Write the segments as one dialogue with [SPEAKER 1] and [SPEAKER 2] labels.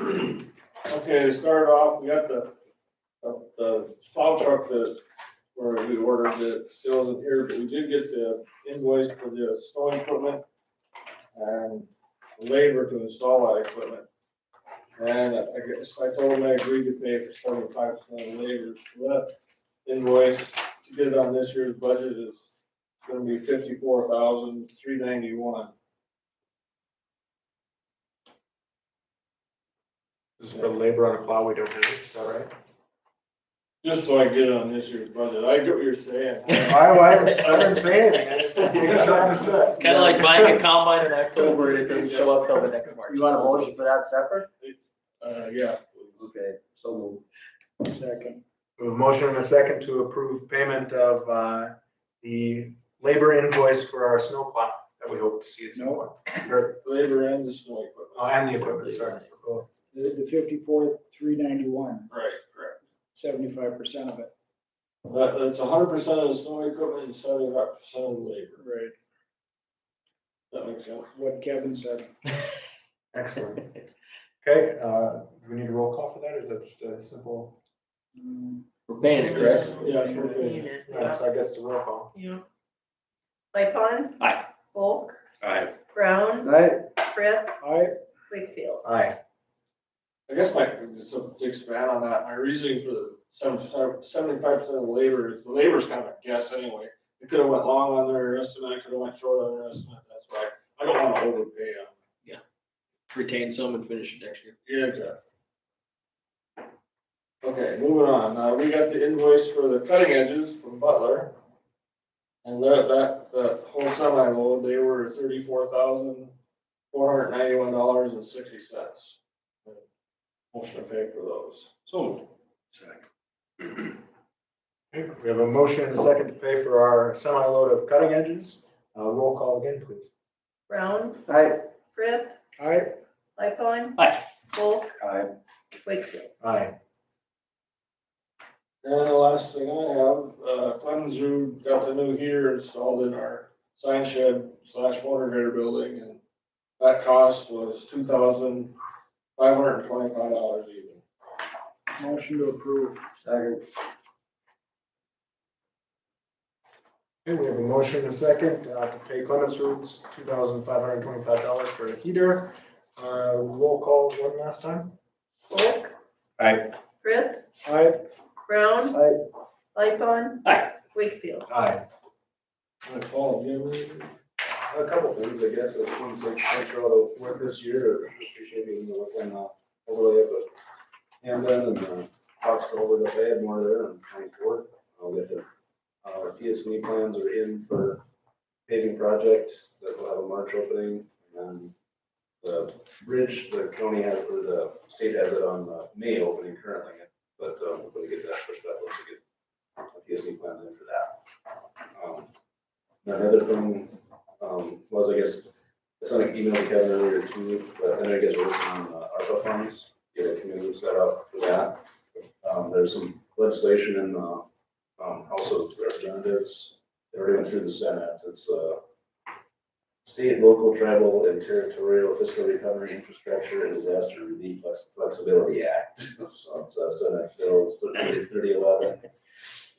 [SPEAKER 1] Okay, to start off, we got the, uh, the plow truck that, where we ordered that still isn't here, but we did get the invoice for the snow equipment and labor to install that equipment. And I guess I told them I agreed to pay for seventy-five percent of labor, So that invoice to get it on this year's budget is gonna be fifty-four thousand, three ninety-one.
[SPEAKER 2] This is for labor on a plow we don't have, is that right?
[SPEAKER 1] Just so I get it on this year's budget, I get what you're saying.
[SPEAKER 2] I, I haven't- I didn't say anything, I just making sure I understood.
[SPEAKER 3] It's kind of like buying a combine in October and it doesn't show up till the next March.
[SPEAKER 4] You want a motion for that separate?
[SPEAKER 1] Uh, yeah.
[SPEAKER 4] Okay, so moved.
[SPEAKER 2] Second. We have a motion and a second to approve payment of, uh, the labor invoice for our snow plow that we hope to see at some point. Or,
[SPEAKER 1] Labor and the snow equipment.
[SPEAKER 2] oh, and the equipment, sorry. Oh, Cool.
[SPEAKER 5] the, the fifty-four, three ninety-one,
[SPEAKER 1] Right, correct.
[SPEAKER 5] seventy-five percent of it.
[SPEAKER 1] That, that's hundred percent of the snow equipment and seventy-five percent of the labor.
[SPEAKER 5] Right.
[SPEAKER 1] That makes sense.
[SPEAKER 5] What Kevin said.
[SPEAKER 2] Excellent. Okay, uh, do we need a roll call for that, or is that just a simple,
[SPEAKER 5] Mm,
[SPEAKER 3] We're paying it, correct?
[SPEAKER 1] Yeah, sure thing.
[SPEAKER 6] Unit,
[SPEAKER 2] yeah, so I guess it's a roll call.
[SPEAKER 6] yeah. Lightfon.
[SPEAKER 3] Aye.
[SPEAKER 6] Bulk.
[SPEAKER 7] Aye.
[SPEAKER 6] Brown.
[SPEAKER 4] Right,
[SPEAKER 6] Frith.
[SPEAKER 5] I,
[SPEAKER 6] Wakefield.
[SPEAKER 2] Aye.
[SPEAKER 1] I guess my, just to expand on that, my reasoning for the seventy-five percent of the labor is, the labor's kind of a guess anyway. It could have went long on their estimate, it could have went short on their estimate, that's why I don't want to overpay them.
[SPEAKER 3] Retain some and finish it next year.
[SPEAKER 1] Yeah, exactly. Okay, moving on, uh, we got the invoice for the cutting edges from Butler. And that, that, that whole semi load, they were thirty-four thousand, four hundred ninety-one dollars and sixty cents. Motion to pay for those. So.
[SPEAKER 2] Okay, We have a motion and a second to pay for our semi-load of cutting edges. Uh, roll call again, please.
[SPEAKER 6] Brown.
[SPEAKER 4] right.
[SPEAKER 6] Frith.
[SPEAKER 5] I,
[SPEAKER 6] Lightfon.
[SPEAKER 3] Aye.
[SPEAKER 6] Bulk.
[SPEAKER 4] Aye.
[SPEAKER 6] Wakefield.
[SPEAKER 2] Aye.
[SPEAKER 1] And the last thing I have, uh, Clemens who got the new heater installed in our sign shed slash water heater building and that cost was two thousand, five hundred and twenty-five dollars even.
[SPEAKER 5] motion to approve.
[SPEAKER 4] Second.
[SPEAKER 2] Okay, we have a motion and a second uh, to pay Clements Roots two thousand five hundred twenty-five dollars for a heater. Uh, roll call one last time.
[SPEAKER 6] Bulk.
[SPEAKER 7] Aye.
[SPEAKER 6] Frith.
[SPEAKER 5] I,
[SPEAKER 6] Brown.
[SPEAKER 4] Aye.
[SPEAKER 6] Lightfon.
[SPEAKER 3] Aye.
[SPEAKER 6] Wakefield.
[SPEAKER 2] Aye.
[SPEAKER 1] My fault, you know, we-
[SPEAKER 4] A couple things, I guess, that one's like, after all the work this year, appreciating the work and, uh, overlay of it. And then, uh, Fox over the bay, more there on twenty-fourth, I'll get the, uh, PSNE plans are in for paving project, that will have a March opening, and the bridge, the county has, or the state has it on, uh, May opening currently, but, um, we're gonna get that pushed back, once we get PSNE E plans in for that. Um, Another thing um, was, I guess, I sent an email to Kevin earlier too, but I know you guys are working on uh, ARPA funds, get a committee set up for that. Um, there's some legislation in, the um, House of Representatives, they already went through the Senate, it's, uh, state, local, tribal, and territorial fiscal recovery infrastructure and disaster relief Flex- flexibility act. So it's, uh, Senate bill
[SPEAKER 3] Nice.
[SPEAKER 4] thirty eleven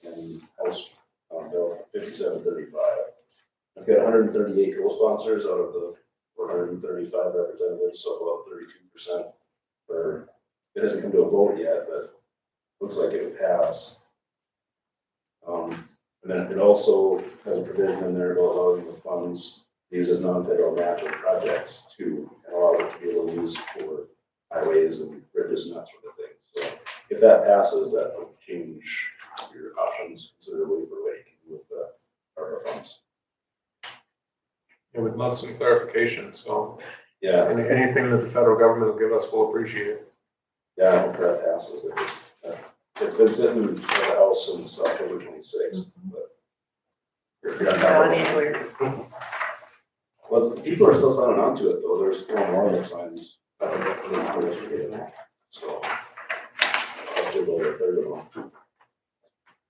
[SPEAKER 4] and House, um, bill fifty-seven thirty-five. I've got hundred and thirty-eight co-sponsors out of the four hundred and thirty-five representatives, so about thirty-two percent. Or, it hasn't come to a vote yet, but looks like it would pass. Um, and then it also has a provision in there about allowing the funds, these as non-federal matching projects too, and allow it to be able to use for highways and bridges and that sort of thing. So if that passes, that will change your options considerably for what you can do with the ARPA funds.
[SPEAKER 2] I would love some clarification, so
[SPEAKER 4] Yeah,
[SPEAKER 2] any- anything that the federal government will give us, we'll appreciate it.
[SPEAKER 4] yeah, I hope that passes. Uh, It's been sitting in the house since October twenty-sixth, but.
[SPEAKER 6] Brown and Wakefield.
[SPEAKER 4] Well, it's- people are still signing on to it, though. There's still warning signs. I think that's really cool that you get. So. I'll give over a third of them.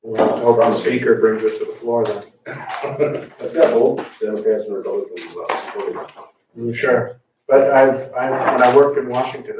[SPEAKER 2] We'll have to hope the speaker brings it to the floor then.
[SPEAKER 4] It's got both Democrats and Republicans uh, supporting it.
[SPEAKER 2] Sure. But I've, I, when I worked in Washington,